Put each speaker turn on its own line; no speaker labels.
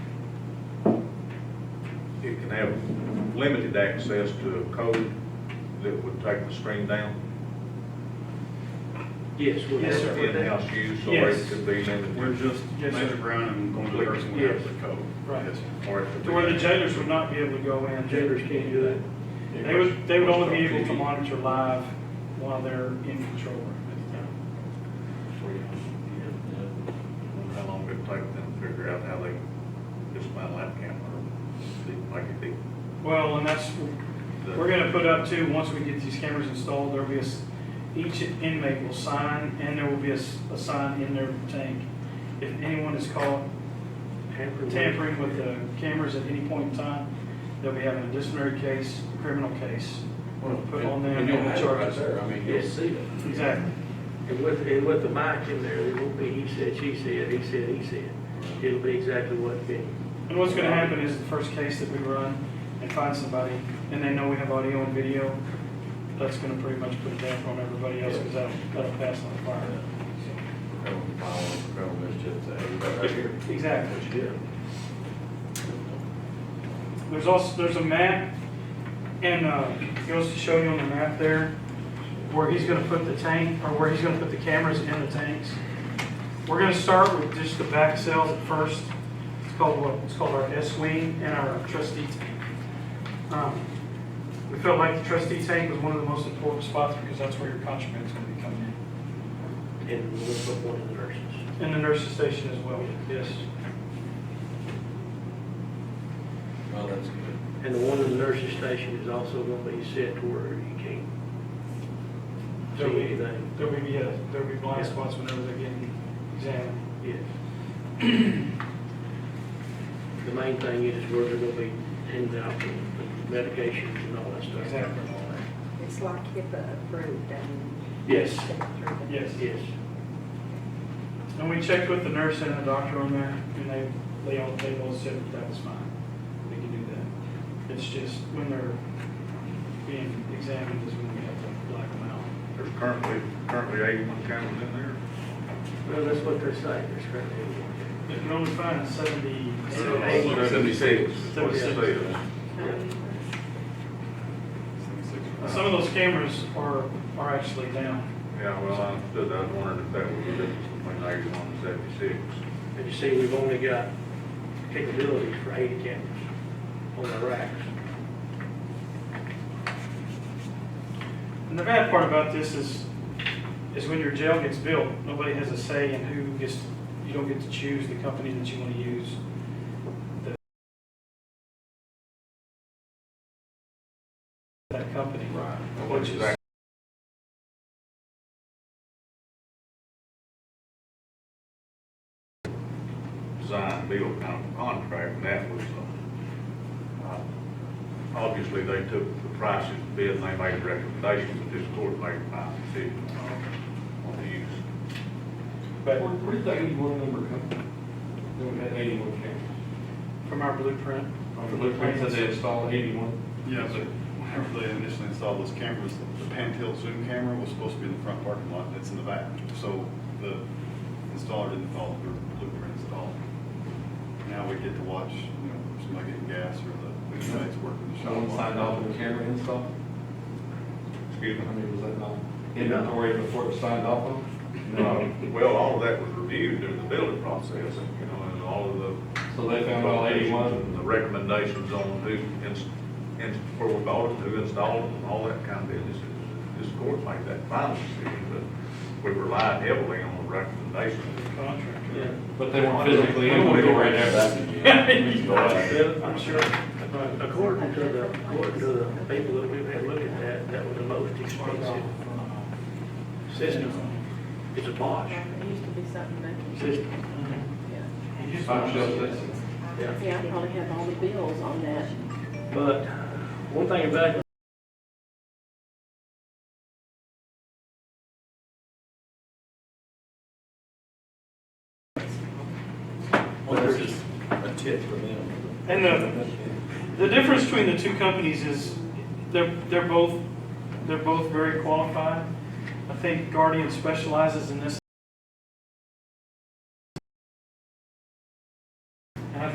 it can have limited access to a code that would take the screen down.
Yes, we
Yes, sir.
In-house use, so it
Yes.
could be
We're
limited,
just,
Yes, sir.
Mr. Brown, I'm going to the person we have the code.
Right.
Yes, sir.
or it could be.
To where the jailers would not be able to go in, jailers can't do that.
Yeah,
They would, they would
Watchdog
only be able to
TV.
monitor live while they're in control room at the time.
Wonder How long it would take them to figure out how they dismantle that camera, see, like it did.
Well, and that's, we're gonna put up too, once we get these cameras installed, there'll be a, s- each inmate will sign, and there will be a, s- a sign in their tank. If anyone is caught tampering with the cameras at any point in time, they'll be having a disciplinary case, criminal case. We'll put on them
And you'll
and
have it right
charge them.
there, I mean, you'll see it.
Exactly.
And with, and with the mic in there, it won't be he said, she said, he said, he said. It'll be exactly what Benny.
And what's gonna happen is the first case that we run and find somebody, and they know we have audio and video, that's gonna pretty much put a damper on everybody else, because that'll, that'll pass on the fire.
Criminal power, criminal mischief, that everybody right here.
Exactly.
What you did.
There's also, there's a map, and, uh, he wants to show you on the map there, where he's gonna put the tank, or where he's gonna put the cameras in the tanks. We're gonna start with just the back cells at first, it's called what, it's called our S wing and our trustee tank. Um, We felt like the trustee tank was one of the most important spots, because that's where your contraband's gonna be coming
And we'll put one of the nurses.
in, and the nurse's station as well, yes.
Well, that's good.
And the one in the nurses station is also gonna be set to where you can't
There will
see
be,
anything.
there will be, uh, there will be blind
Yeah.
spots whenever they get examined.
Yes. The main thing is where they're gonna be handing out the medications and all that stuff.
Exactly.
It's like HIPAA approved, I mean.
Yes.
step through the-
Yes.
Yes.
And we checked with the nurse and the doctor on there, and they, they all, they all said that that was fine. They can do that. It's just when they're being examined is when we have to black them out.
There's currently, currently eighty-one cameras in there.
Well, that's what they're saying, it's currently one.
You can only find seventy,
Eight.
Oh,
seventy-eight.
Seventy-six. What it
Seventy-six.
says.
Some of those cameras are, are actually down.
Yeah, well, I understood, I was wondering if that would be different between eighty-one and seventy-six.
And you see, we've only got capabilities for eighty cameras on the racks.
And the bad part about this is, is when your jail gets built, nobody has a say in who gets, you don't get to choose the company that you want to use. The- That company. Right. Which is.
Design, build, kind of contract, and that was, uh, uh, obviously, they took the prices, bid, and they made recommendations, but this court made a final decision on- on the use.
But
Where, where did that eighty-one number come from? Then we had eighty-one cameras.
from our blueprint.
On the blueprint, it said they installed eighty-one.
Yeah, but whenever they initially installed those cameras, the Pantail Zoom camera was supposed to be in the front parking lot, it's in the back. So the installer didn't follow the blueprints at all. Now we get to watch, you know, somebody getting gas or the inmates working the shop.
Someone signed off on the camera install?
Excuse
How
me?
many was that now? Inventory before it was signed off on? No.
Well, all of that was reviewed during the building process, and, you know, and all of the.
So they found all
and
eighty-one?
The recommendations on who, ins- ins- where we bought them, who installed them, and all that kind of business. This court made that final decision, but we relied heavily on the recommendations.
Contract.
Yeah.
But they weren't physically inventory
Uh,
there.
I'm sure. Right.
According to the, according to the people that we've had look at that, that was the most expensive system. It's a Bosch
Yeah, It used to be something that,
system.
yeah.
Five shelves, that's-
Yeah.
Yeah, I probably have all the bills on that.
But one thing about it,
Well, this is a tip for them.
And the, the difference between the two companies is they're, they're both, they're both very qualified. I think Guardian specializes in this